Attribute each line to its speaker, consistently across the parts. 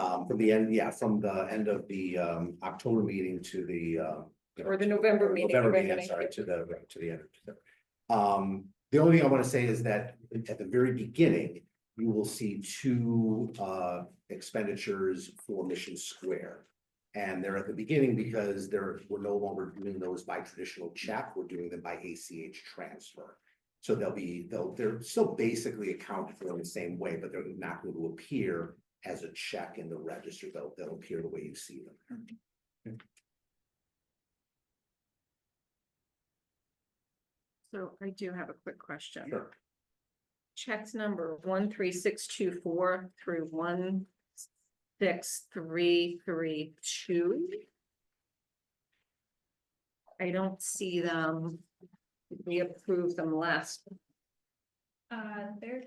Speaker 1: um, from the end, yeah, from the end of the um October meeting to the uh.
Speaker 2: Or the November meeting,
Speaker 1: November
Speaker 2: right,
Speaker 1: meeting, I'm
Speaker 2: right.
Speaker 1: sorry, to the, right, to the end. of December. Um, the only thing I wanna say is that at the very beginning, you will see two uh expenditures for Mission Square. And they're at the beginning because they're, we're no longer doing those by traditional check, we're doing them by ACH transfer. So they'll be, they'll, they're still basically accounted for in the same way, but they're not going to appear as a check in the register, they'll, they'll appear the way you see them.
Speaker 2: So I do have a quick question.
Speaker 1: Sure.
Speaker 2: Checks number one, three, six, two, four through one, six, three, three, two. I don't see them. We approved them last.
Speaker 3: Uh, they're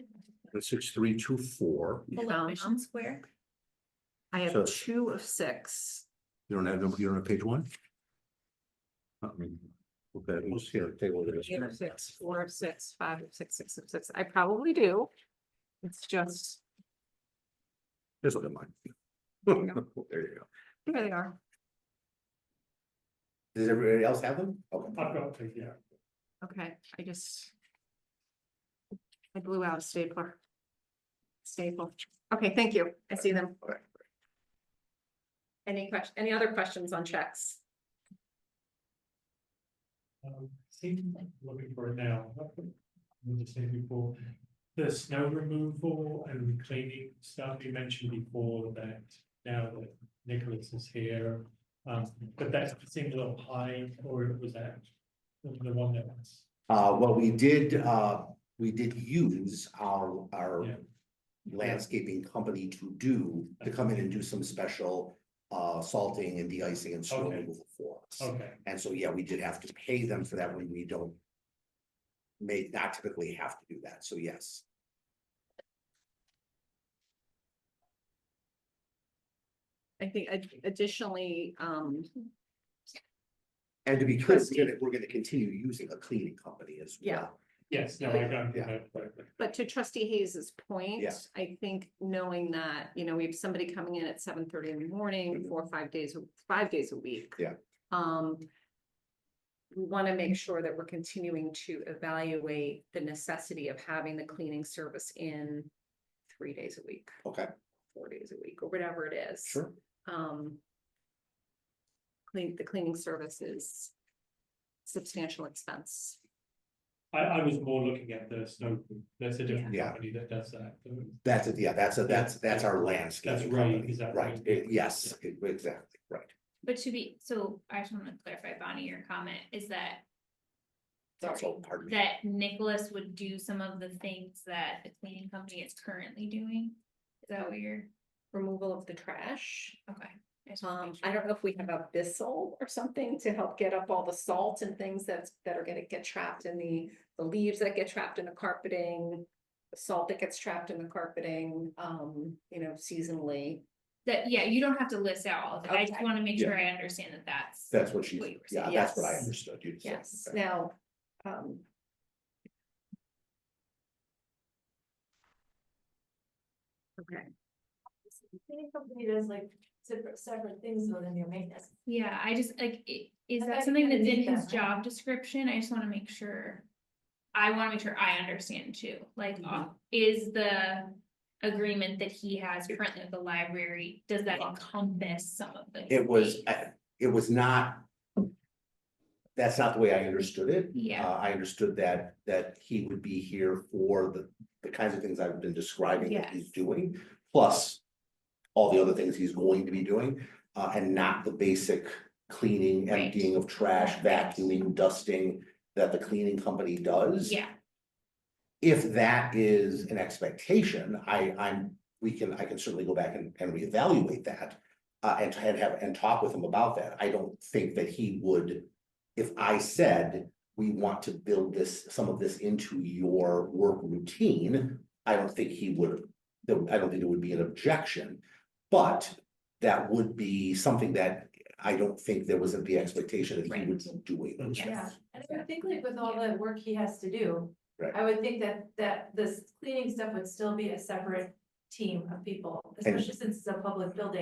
Speaker 1: Six, three, two, four, you
Speaker 3: below
Speaker 2: found them?
Speaker 3: Mission Square.
Speaker 2: Um, I
Speaker 1: So-
Speaker 2: have two of six.
Speaker 1: don't have, them- you don't have page one? Uh, I mean, Okay, let's see, table this.
Speaker 2: Three of six, four of six, five of six, six of six. I probably do. It's just,
Speaker 1: Just look at mine.
Speaker 2: you
Speaker 1: There you go.
Speaker 2: there they are.
Speaker 1: Does everybody else have them?
Speaker 4: I've
Speaker 1: Okay.
Speaker 4: got to, yeah.
Speaker 2: Okay, I just. I blew out a stapler. Staple. Okay, thank you. I see them.
Speaker 1: Alright.
Speaker 2: Any question, any other questions on checks?
Speaker 4: Um, see, looking for it now. We were just saying before, the snow removal and cleaning stuff you mentioned before that now that Nicholas is here. Um, but that seemed a little high, or it was that, the one that was,
Speaker 1: Uh, well, we did, uh, we did use our, our
Speaker 4: Yeah.
Speaker 1: landscaping company to do, to come in and do some special uh salting and de-icing and snow
Speaker 4: Okay.
Speaker 1: removal for us.
Speaker 4: okay,
Speaker 1: And so, yeah, we did have to pay them for that when we don't may not typically have to do that. So yes,
Speaker 2: I think ad- additionally, um,
Speaker 1: and to be clear, we're gonna, we're gonna continue using a cleaning company as
Speaker 2: Yeah.
Speaker 1: well.
Speaker 4: yes, no, I got
Speaker 1: Yeah.
Speaker 4: that, but
Speaker 2: but to trustee Hayes's point,
Speaker 1: Yes.
Speaker 2: I think knowing that, you know, we have somebody coming in at seven thirty in the morning,
Speaker 1: Mhm.
Speaker 2: four or five days, five days a week.
Speaker 1: Yeah.
Speaker 2: Um. We want to make sure that we're continuing to evaluate the necessity of having the cleaning service in three days a week,
Speaker 1: Okay,
Speaker 2: four days a week, or whatever it is.
Speaker 1: sure.
Speaker 2: Um. Clean, the cleaning service is substantial expense.
Speaker 4: I, I was more looking at the snow, that's a different
Speaker 1: Yeah.
Speaker 4: company that does that.
Speaker 1: That's, it. yeah, that's, a that's, that's our landscaping
Speaker 4: right,
Speaker 1: company.
Speaker 4: exactly.
Speaker 1: Right, It- yes, it- exactly, right.
Speaker 3: But to be, so I just want to clarify, Bonnie, your comment is that.
Speaker 1: That's
Speaker 3: sorry,
Speaker 1: all, pardon me.
Speaker 3: That Nicholas would do some of the things that the cleaning company is currently doing. Is that what you're,
Speaker 2: Removal of the trash.
Speaker 3: okay. just wanna
Speaker 2: Um,
Speaker 3: make
Speaker 2: I
Speaker 3: sure.
Speaker 2: don't know if we have a bissel or something to help get up all the salt and things that's, that are gonna get trapped in the, the leaves that get trapped in the carpeting. The salt that gets trapped in the carpeting, um, you know, seasonally.
Speaker 3: That, yeah, you don't have to list out all of it. I just
Speaker 2: Okay.
Speaker 3: want to make
Speaker 1: Yeah.
Speaker 3: sure I understand that that's.
Speaker 1: That's what she's,
Speaker 3: What you were
Speaker 1: yeah,
Speaker 3: saying.
Speaker 1: that's what I
Speaker 2: Yes.
Speaker 1: understood. You said.
Speaker 2: Yes,
Speaker 1: Okay.
Speaker 2: now, um. Okay.
Speaker 5: Cleaning company does like separate, separate things within your maintenance.
Speaker 3: Yeah, I just like, i- is
Speaker 5: I
Speaker 3: that
Speaker 5: thought
Speaker 3: something
Speaker 5: you
Speaker 3: that's in
Speaker 5: did
Speaker 3: his
Speaker 5: that.
Speaker 3: job description? I just wanna make sure. I wanna make sure I understand too, like, uh, is the agreement that he has currently with the library, does that encompass some of the?
Speaker 1: It was,
Speaker 3: things?
Speaker 1: uh, it was not. That's not the way I understood it.
Speaker 3: Yeah.
Speaker 1: Uh, I understood that, that he would be here for the, the kinds of things I've been describing that he's
Speaker 3: Yes.
Speaker 1: doing, plus. All the other things he's going to be doing, uh, and not the basic cleaning,
Speaker 3: Right.
Speaker 1: emptying of trash,
Speaker 3: Right.
Speaker 1: vacuuming, dusting. That the cleaning company does.
Speaker 3: Yeah,
Speaker 1: if that is an expectation, I, I'm, we can, I can certainly go back and, and reevaluate that. Uh, and, and have, and talk with him about that. I don't think that he would, if I said, we want to build this, some of this into your work routine. I don't think he would, there- I don't think there would be an objection, but that would be something that I don't think there was the expectation that he
Speaker 3: Right.
Speaker 1: would be doing. those
Speaker 3: Yes.
Speaker 5: Yeah,
Speaker 1: things.
Speaker 5: and I would think like with all the work he has to do.
Speaker 1: Right.
Speaker 5: I would think that, that this cleaning stuff would still be a separate team of people, especially since it's a public building.